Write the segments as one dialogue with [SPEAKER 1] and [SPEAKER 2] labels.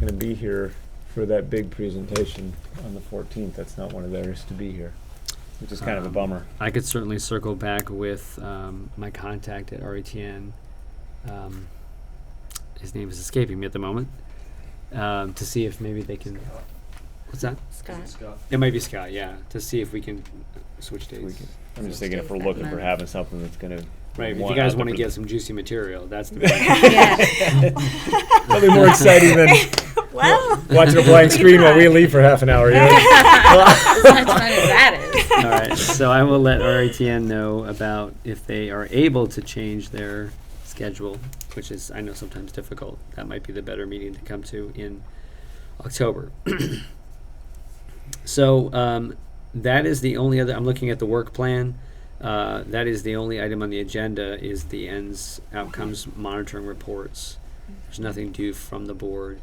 [SPEAKER 1] gonna be here for that big presentation on the fourteenth. That's not one of theirs to be here, which is kind of a
[SPEAKER 2] Um,
[SPEAKER 1] bummer.
[SPEAKER 2] I could certainly circle back with um, my contact at RETN. Um, his name is escaping me at the moment. Um, to see if maybe they can. What's that?
[SPEAKER 3] Scott.
[SPEAKER 2] It might be Scott. Yeah. To see if we can switch dates.
[SPEAKER 1] We can- I'm just thinking if we're looking for having something that's gonna.
[SPEAKER 2] right. If
[SPEAKER 1] one
[SPEAKER 2] you
[SPEAKER 1] out
[SPEAKER 2] guys
[SPEAKER 1] there
[SPEAKER 2] want to
[SPEAKER 1] for-
[SPEAKER 2] get some juicy material, that's the. Point.
[SPEAKER 1] Nothing more exciting than
[SPEAKER 3] Well,
[SPEAKER 1] watching a blank screen while we leave for half an hour, you know?
[SPEAKER 3] as much fun as that is.
[SPEAKER 2] All right, so I will let RITN know about if they are able to change their schedule, which is, I know sometimes difficult. That might be the better meeting to come to in October. So, um, that is the only other, I'm looking at the work plan. Uh, that is the only item on the agenda is the ends outcomes monitoring reports. There's nothing due from the board,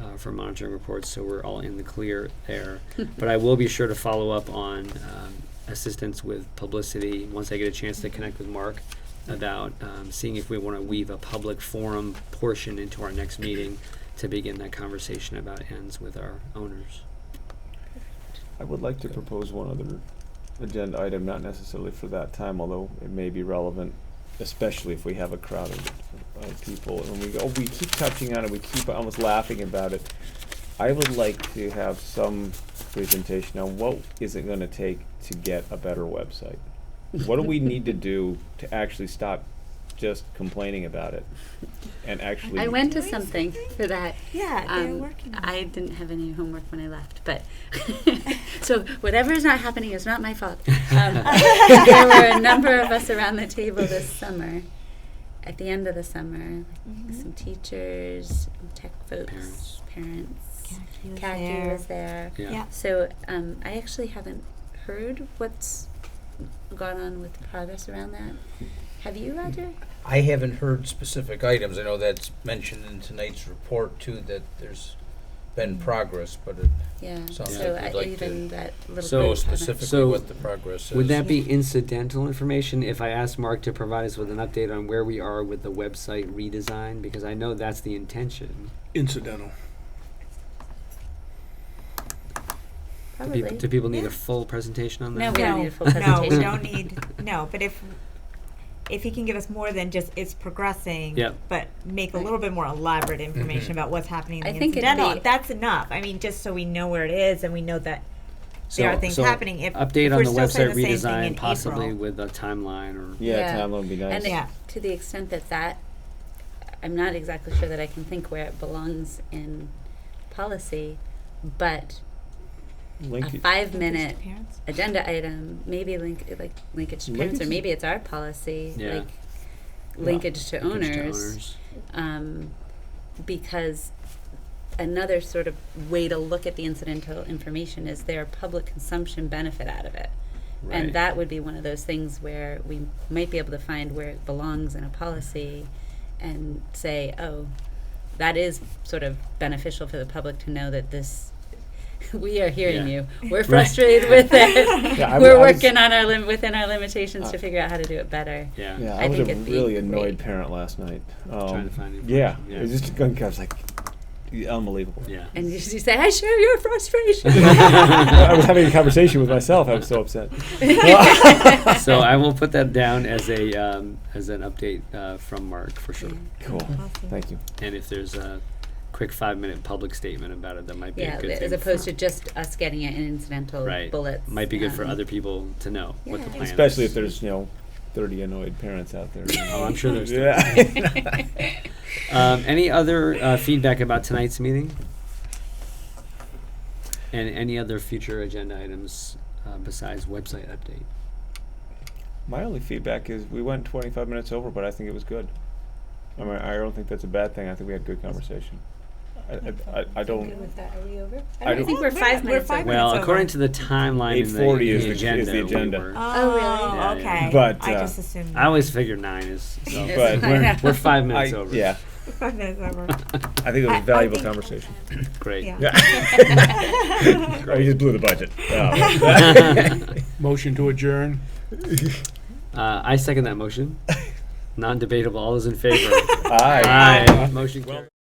[SPEAKER 2] uh, for monitoring reports, so we're all in the clear there but I will be sure to follow up on um, assistance with publicity once I get a chance to connect with Mark about um, seeing if we want to weave a public forum portion into our next meeting to begin that conversation about ends with our owners.
[SPEAKER 1] I would like to propose one other agenda item, not necessarily for that time, although it may be relevant, especially if we have a crowd of uh, people, and we go, oh, we keep touching on it, we keep almost laughing about it. I would like to have some presentation on what is it gonna take to get a better website? What do we need to do to actually stop just complaining about it and actually?
[SPEAKER 4] I went to something for that.
[SPEAKER 3] Yeah, they're
[SPEAKER 4] Um,
[SPEAKER 3] working. on
[SPEAKER 4] I didn't have any homework when I left, but so whatever is not happening is not my fault. Um, there were a number of us around the table this summer, at the end of the summer, like
[SPEAKER 3] Mm-hmm.
[SPEAKER 4] some teachers, tech folks, parents.
[SPEAKER 3] it.
[SPEAKER 4] Khaki was there.
[SPEAKER 2] Yeah.
[SPEAKER 3] Yeah.
[SPEAKER 4] So um, I actually haven't heard what's gone on with the progress around that. Have you, Roger?
[SPEAKER 5] I haven't heard specific items. I know that's mentioned in tonight's report too, that there's been progress, but it
[SPEAKER 4] Yeah.
[SPEAKER 5] Sounds
[SPEAKER 4] so
[SPEAKER 5] like
[SPEAKER 4] I,
[SPEAKER 5] you'd like to
[SPEAKER 4] even that little
[SPEAKER 2] So
[SPEAKER 4] group
[SPEAKER 5] know
[SPEAKER 4] haven't-
[SPEAKER 5] specifically
[SPEAKER 2] So,
[SPEAKER 5] what the progress is.
[SPEAKER 2] Would that be incidental information if I asked Mark to provide us with an update on where we are with the website redesign? Because I know that's the intention
[SPEAKER 6] incidental.
[SPEAKER 2] Do peop-
[SPEAKER 4] Probably.
[SPEAKER 2] Do people need
[SPEAKER 3] Yeah.
[SPEAKER 2] a full presentation on that?
[SPEAKER 4] No, we don't need a full
[SPEAKER 3] No, we
[SPEAKER 4] presentation.
[SPEAKER 3] don't need, no, but if, if he can give us more than just it's progressing.
[SPEAKER 2] Yep.
[SPEAKER 3] But make a little bit more elaborate information about what's happening
[SPEAKER 4] I
[SPEAKER 3] in the
[SPEAKER 4] think it'd
[SPEAKER 3] incidental,
[SPEAKER 4] be-
[SPEAKER 3] that's enough. I mean, just so we know where it is and we know that there
[SPEAKER 2] So-
[SPEAKER 3] are things
[SPEAKER 2] so
[SPEAKER 3] happening. If- if
[SPEAKER 2] Update on
[SPEAKER 3] we're
[SPEAKER 2] the
[SPEAKER 3] still saying
[SPEAKER 2] website
[SPEAKER 3] the same thing in
[SPEAKER 2] redesign, possibly
[SPEAKER 3] April.
[SPEAKER 2] with a timeline or
[SPEAKER 1] Yeah,
[SPEAKER 4] Yeah.
[SPEAKER 1] timeline would be nice.
[SPEAKER 4] And it-
[SPEAKER 3] Yeah.
[SPEAKER 4] to the extent that that, I'm not exactly sure that I can think where it belongs in policy, but a
[SPEAKER 1] Link it-
[SPEAKER 4] five-minute
[SPEAKER 3] Parents?
[SPEAKER 4] agenda item, maybe link, like linkage to parents, or
[SPEAKER 1] Linkage-
[SPEAKER 4] maybe it's our policy,
[SPEAKER 2] Yeah.
[SPEAKER 4] like linkage to
[SPEAKER 2] Linkage to
[SPEAKER 4] owners. um, because another sort of way to look at the incidental information is their public consumption benefit out of it.
[SPEAKER 2] Right.
[SPEAKER 4] And that would be one of those things where we might be able to find where it belongs in a policy and say, oh, that is sort of beneficial for the public to know that this. We are hearing
[SPEAKER 2] Yeah.
[SPEAKER 4] you. We're frustrated with it.
[SPEAKER 1] Yeah, I w-
[SPEAKER 4] We're
[SPEAKER 1] I was-
[SPEAKER 4] working on our lim- within our limitations
[SPEAKER 1] Uh,
[SPEAKER 4] to figure out how to do it better.
[SPEAKER 2] Yeah.
[SPEAKER 1] Yeah, I,
[SPEAKER 4] I
[SPEAKER 1] was
[SPEAKER 4] think
[SPEAKER 1] a
[SPEAKER 4] it'd be
[SPEAKER 1] really annoyed
[SPEAKER 4] great.
[SPEAKER 1] parent last night. Um,
[SPEAKER 2] Trying to find
[SPEAKER 1] yeah,
[SPEAKER 2] information,
[SPEAKER 1] it was just going. I was like, y- unbelievable.
[SPEAKER 2] Yeah.
[SPEAKER 4] And you, you say, I share your frustration.
[SPEAKER 1] I was having a conversation with myself. I was so upset.
[SPEAKER 3] Oh,
[SPEAKER 2] so I will put that down as a um, as an update uh, from Mark for sure.
[SPEAKER 1] Cool. Thank you.
[SPEAKER 2] And if there's a quick five minute public statement about it, that might be
[SPEAKER 4] Yeah,
[SPEAKER 2] a good
[SPEAKER 4] as
[SPEAKER 2] thing
[SPEAKER 4] opposed
[SPEAKER 2] for,
[SPEAKER 4] to just us getting it in incidental
[SPEAKER 2] right
[SPEAKER 4] bullets.
[SPEAKER 2] Might be good for
[SPEAKER 4] um,
[SPEAKER 2] other people to know what the
[SPEAKER 4] yeah.
[SPEAKER 2] plan
[SPEAKER 1] Especially
[SPEAKER 2] is.
[SPEAKER 1] if there's you know, thirty annoyed parents out there.
[SPEAKER 2] Oh, I'm sure there's.
[SPEAKER 1] yeah.
[SPEAKER 2] Um, any other uh, feedback about tonight's meeting? And any other future agenda items uh, besides website update?
[SPEAKER 1] My only feedback is we went 25 minutes over, but I think it was good. I mean, I don't think that's a bad thing. I think we had good conversation. I, I, I, I don't. I
[SPEAKER 4] I
[SPEAKER 1] don't-
[SPEAKER 4] think we're five minutes.
[SPEAKER 3] five minutes.
[SPEAKER 4] over.
[SPEAKER 2] Well,
[SPEAKER 3] over.
[SPEAKER 2] according to the timeline in the,
[SPEAKER 1] 8:40
[SPEAKER 2] in
[SPEAKER 1] is
[SPEAKER 2] the
[SPEAKER 1] the-
[SPEAKER 2] agenda,
[SPEAKER 1] is the agenda.
[SPEAKER 2] We were,
[SPEAKER 3] Oh,
[SPEAKER 4] really?
[SPEAKER 2] Yeah, yeah.
[SPEAKER 3] okay.
[SPEAKER 1] But,
[SPEAKER 3] I
[SPEAKER 1] uh,
[SPEAKER 3] just assumed
[SPEAKER 2] I always figure nine is. So
[SPEAKER 4] Yes,
[SPEAKER 1] But
[SPEAKER 4] I
[SPEAKER 2] we're,
[SPEAKER 4] know.
[SPEAKER 2] we're five minutes
[SPEAKER 1] I,
[SPEAKER 2] over.
[SPEAKER 1] yeah,
[SPEAKER 3] five minutes over.
[SPEAKER 1] I think it was
[SPEAKER 3] I-
[SPEAKER 1] a
[SPEAKER 3] I
[SPEAKER 1] valuable
[SPEAKER 3] think-
[SPEAKER 1] conversation.
[SPEAKER 2] Great.
[SPEAKER 3] Yeah.
[SPEAKER 1] Yeah. Oh, you just blew the budget. Oh.
[SPEAKER 6] Motion to adjourn.
[SPEAKER 2] Uh, I second that motion. Non-debatable. All those in favor?
[SPEAKER 1] Aye.
[SPEAKER 2] Aye. Motion carried.